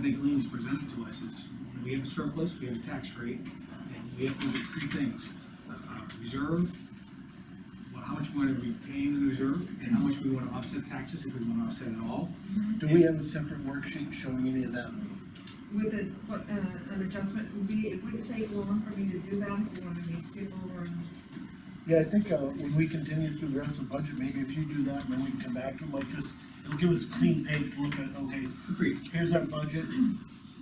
think Lean's presented to us is, we have a surplus, we have a tax rate, and we have to do three things. Uh, uh, Reserve, well, how much money we pay in the reserve, and how much we wanna offset taxes, if we wanna offset at all. Do we have a separate worksheet showing any of that? With a, what, uh, an adjustment, would be, it wouldn't take long for me to do that, if you wanted me to skip over and. Yeah, I think, uh, when we continue through the rest of the budget, maybe if you do that, and then we can come back to it, like, just, it'll give us a clean page to look at, okay, Agreed. here's our budget,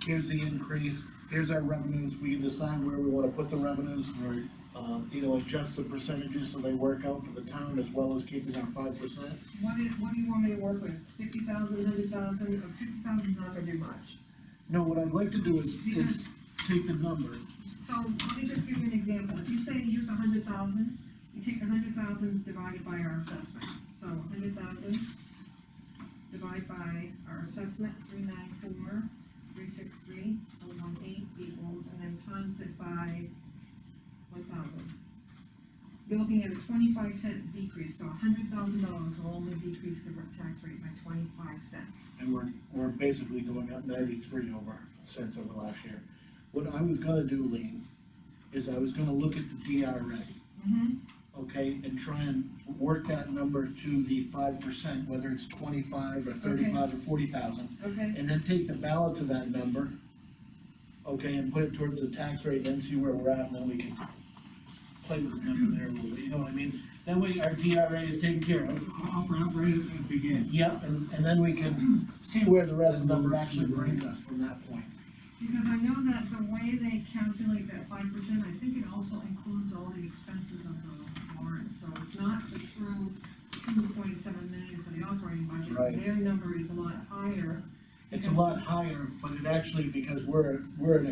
here's the increase, here's our revenues, we can decide where we wanna put the revenues, or, um, you know, adjust the percentages so they work out for the town as well as keeping our five percent. What is, what do you want me to work with, fifty thousand, hundred thousand, or fifty thousand's not gonna do much? No, what I'd like to do is, is take the number, So, let me just give you an example, if you say you use a hundred thousand, you take a hundred thousand divided by our assessment, so a hundred thousand divided by our assessment, three nine four, three six three, oh one eight equals, and then times it by one thousand. You're looking at a twenty-five cent decrease, so a hundred thousand dollars will only decrease the tax rate by twenty-five cents. and we're, we're basically going up ninety-three over cents over last year. What I was gonna do, Lean, is I was gonna look at the DRA, Mm-hmm. okay, and try and work that number to the five percent, whether it's twenty-five or thirty-five or forty thousand. Okay, And then take the balance of that number, okay, and put it towards the tax rate, then see where we're at, and then we can play with the number there a little bit, you know what I mean? That way our DRA is taken care of, I'll, I'll bring up right at the beginning. Yep, and, and then we can see where the rest of the number actually brings us from that point. because I know that the way they calculate that five percent, I think it also includes all the expenses of the warrant, so it's not the true two point seven million for the operating budget. Right. Their number is a lot higher. It's a lot higher, but it actually, because we're, we're in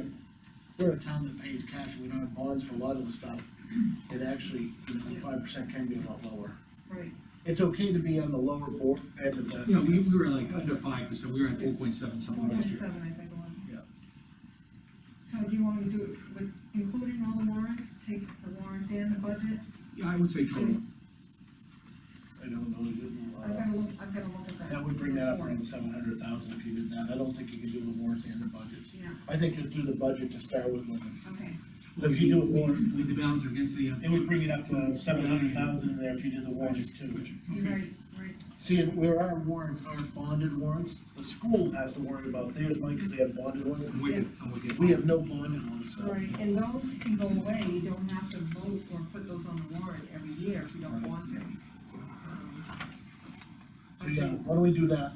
a, we're a town that pays cash, we don't have bonds for a lot of the stuff. It actually, you know, five percent can be a lot lower. Right, It's okay to be on the lower board end of You know, we, the, we were like under five percent, we were at four point seven four something point last year. seven, I think it was. Yeah. So do you want me to do it with, including all the warrants, take the warrants and the budget? Yeah, I would say total. I don't know, is I've it, gotta look, I've gotta look at uh, that. that would bring that up around seven hundred thousand if you did that, I don't think you can do the warrants and the budgets. Yeah, I think just do the budget to start with, Lynn. okay, if you do it more, With the balance against the. uh, it would bring it up to seven hundred thousand in there if you did the warrants too. budget. you're Okay. right, right. See, where our warrants aren't bonded warrants, the school has to worry about theirs, Mike, because they have bonded ones. I'm with you, I'm with you. We have no bonded ones, so. Right, and those can go away, you don't have to vote or put those on the warrant every year if you don't want to. Um, So, yeah, okay, why don't we do that?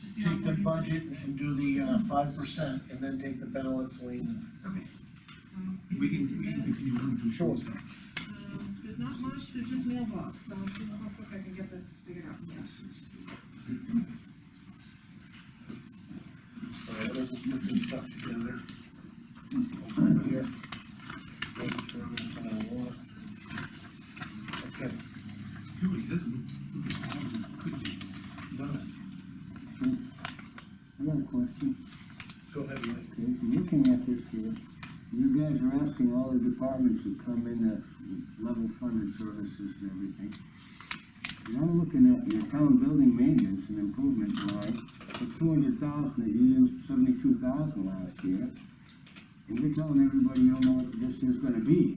Just the Take the operating- budget and do the uh, five percent, and then take the balance, Lean. Okay. Um, We can, we can continue on to. Sure. um, There's not much, there's just mailbox, so I'll see how quick I can get this figured out, yes. So let us just put this stuff together. Over here. Make sure it's on the warrant. Okay, Really doesn't look, look as bad as it could be. done I got a question, it. Go ahead, Mike. okay, looking at this here, you guys are asking all the departments to come in at level funded services and everything. And I'm looking at your town building maintenance and improvement line, for two hundred thousand, that you used seventy-two thousand last year. And you're telling everybody you don't know what this is gonna be.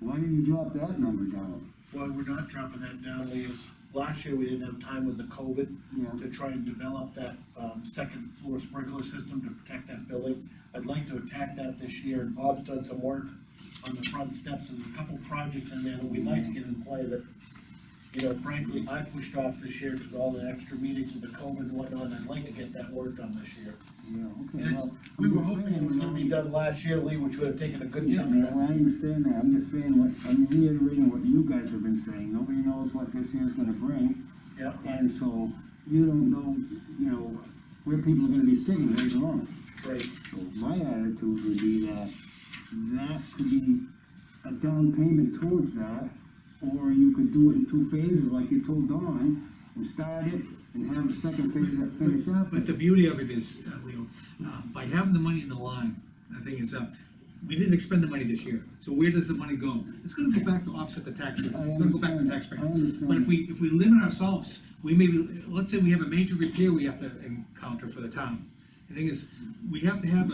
Why didn't you drop that number down? Why we're not dropping that down, Lee, is last year we didn't have time with the COVID Yeah. to try and develop that, um, second floor sprinkler system to protect that building. I'd like to attack that this year, and Bob's done some work on the front steps, and there's a couple projects in there that we'd like to get in play that, you know, frankly, I pushed off this year because all the extra meetings with the COVID and whatnot, and I'd like to get that work done this year. Yeah, And okay, it's, well. we were I'm just hoping it saying, was you gonna know, be done last year, Lee, which would have taken a good Yeah, chunk man, of that. I understand that, I'm just saying what, I'm reiterating what you guys have been saying, nobody knows what this year's gonna bring, Yeah, and so you don't know, you know, where people are gonna be sitting later on. great. So my attitude would be that, that could be a down payment towards that, or you could do it in two phases like you told Dawn, and start it, and have the second phase that finish after. But the beauty of it is, uh, Leo, uh, by having the money in the line, I think it's, uh, we didn't expend the money this year, so where does the money go? It's gonna go back to offset the tax, rate. I it's gonna go back to understand. tax rate. I understand. But if we, if we limit ourselves, we maybe, let's say we have a major repair we have to encounter for the town, The thing is, we have to have